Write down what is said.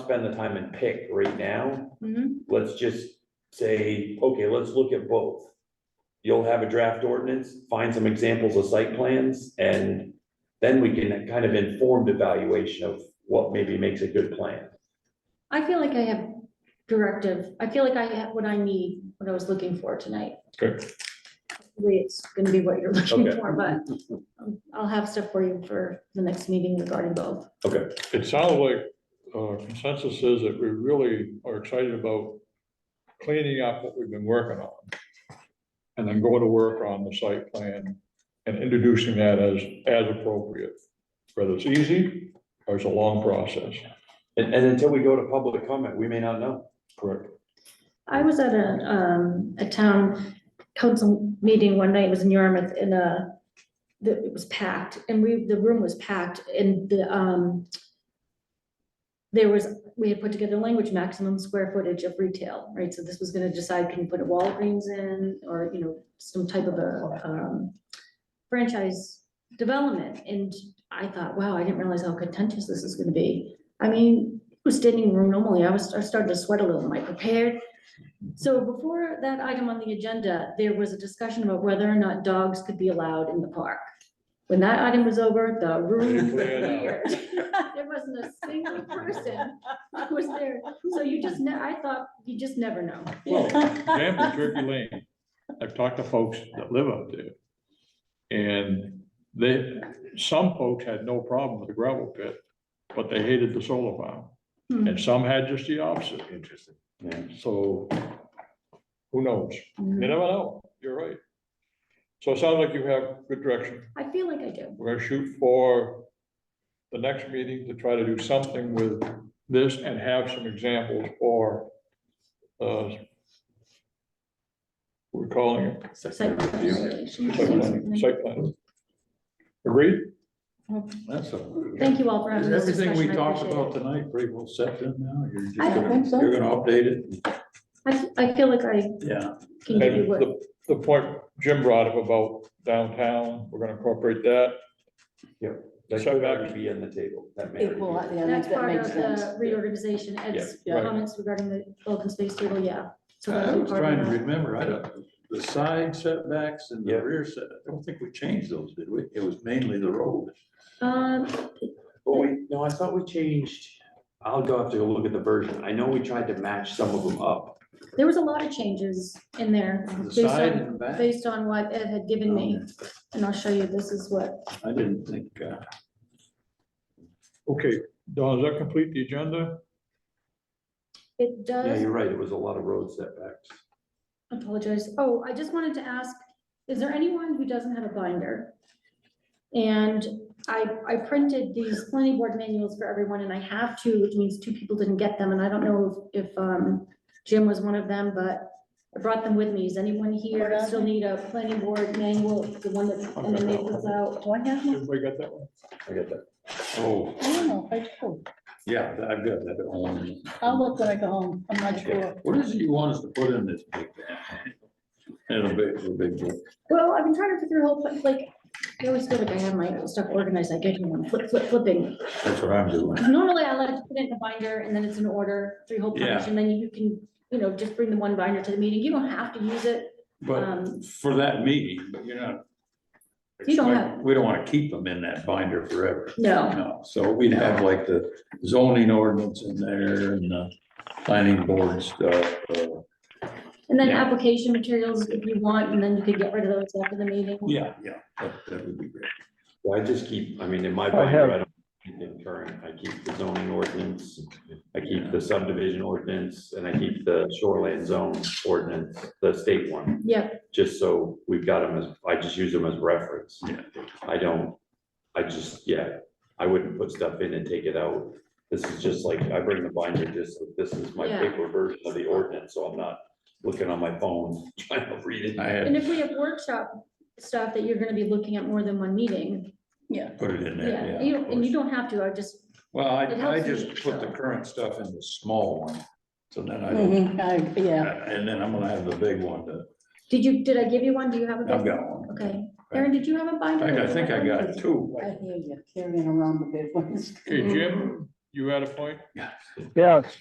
spend the time and pick right now. Mhm. Let's just say, okay, let's look at both. You'll have a draft ordinance, find some examples of site plans, and then we can kind of informed evaluation of what maybe makes a good plan. I feel like I have directive, I feel like I have what I need, what I was looking for tonight. Good. Hopefully, It's gonna be what you're looking Okay. for, but um, I'll have stuff for you for the next meeting regarding both. It sounds like uh, consensus is that we really are excited about cleaning up what we've been working on. And then going to work on the site plan and introducing that as, as appropriate. Whether it's easy or it's a long process. And, and until we go to public comment, we may not know. Correct. I was at a, um, a town council meeting one night, it was in Yarmouth, and, uh, the, it was packed, and we, the room was packed, and the, um, there was, we had put together language maximum square footage of retail, right? So this was gonna decide, can you put a Walgreens in, or, you know, some type of a, um, franchise development, and I thought, wow, I didn't realize how contentious this is gonna be. I mean, it was standing room normally, I was, I started to sweat a little, am I prepared? So before that item on the agenda, there was a discussion about whether or not dogs could be allowed in the park. When that item was over, the room Cleared out. cleared. There wasn't a single person who was there. So you just, ne- I thought, you just never know. Well, example, Turkey Lane, I've talked to folks that live up there. And they, some folks had no problem with the gravel pit, but they hated the solar farm. Hmm. And some had just the opposite. Interesting. Yeah, So who knows? Hmm. You Mhm. never know. You're right. So it sounds like you have good direction. I feel like I do. We're gonna shoot for the next meeting to try to do something with this and have some examples or uh, we're calling it Site plan evaluation, site plan, something. site plan. Agreed? That's all. Thank you all for having Is this everything we discussion. I talked appreciate about it. tonight pretty well set in now? You're just I don't gonna- think so. You're gonna update it? I, f- I feel like I Yeah. can give you And what, the, the point Jim brought up about downtown, we're gonna incorporate that. that could already be on the table, that may. It will, already yeah, that's that that part makes of the sense. reorganization, Ed's Yeah, right. comments regarding the open space table, yeah. So I that'll be was part of trying to that. remember, I don't, the side setbacks and Yeah. the rear set, I don't think we changed those, did we? It was mainly the road. Um, Oh, wait, no, I thought we changed. I'll go have to go look at the version. I know we tried to match some of them up. there was a lot of changes in there The based side on, and the back. based on what Ed had given me, and I'll show you, this is what, I didn't think, uh, Okay, Don, does that complete the agenda? it Yeah, does, you're right. It was a lot of road setbacks. apologize, oh, I just wanted to ask, is there anyone who doesn't have a binder? And I, I printed these planning board manuals for everyone, and I have two, which means two people didn't get them, and I don't know if, if, um, Jim was one of them, but I brought them with me, is anyone here still need a planning board manual, the one that, and then they was out? Do I have one? Everybody got that one? I get that. oh, I don't know, if I do. yeah, I've got that on. I'll look when I go home, I'm not sure. What is it you want us to put in this big bag? In a big, a big book. Well, I've been trying to figure out, but like, I always feel like I have my stuff organized, I get here and I'm flip, flip, flipping. That's what I'm doing. Normally I like to put it in a binder and then it's an order, three whole Yeah. pages, and then you can, you know, just bring the one binder to the meeting. You don't have to use it. Um, But for that meeting, but you're not. You don't expect- have- We don't want to keep them in that binder forever. No, No, so we'd have like the zoning ordinance in there and the planning board stuff. uh, and then Yeah. application materials if you want, and then you could get rid of those after the meeting. Yeah, yeah, that, that would be great. Well, I just keep, I mean, in my I have- binder, I don't keep them current. I keep the zoning ordinance. I keep the subdivision ordinance and I keep the shoreline zone ordinance, the state one, Yeah, just so we've got them as, I just use them as reference. Yeah. I don't, I just, yeah, I wouldn't put stuff in and take it out. This is just like, I bring the binder, just, this is my Yeah. paper version of the ordinance, so I'm not looking on my phone trying to read I it. had and if we have workshop stuff that you're gonna be looking at more than one meeting, Yeah, put it in yeah, there, you, yeah. of and you course. don't have to, I just, Well, I, it I helps me just put the show. current stuff in the small one, so then I Mm-hmm. don't, Mhm, I- yeah, and then I'm gonna have the big one to, did you, did I give you one? Do you have a? I've got one. Okay, Erin, did you have a In binder? fact, I think I got two. I hear you carrying around the big ones. Okay, Jim, You had a point? Yes.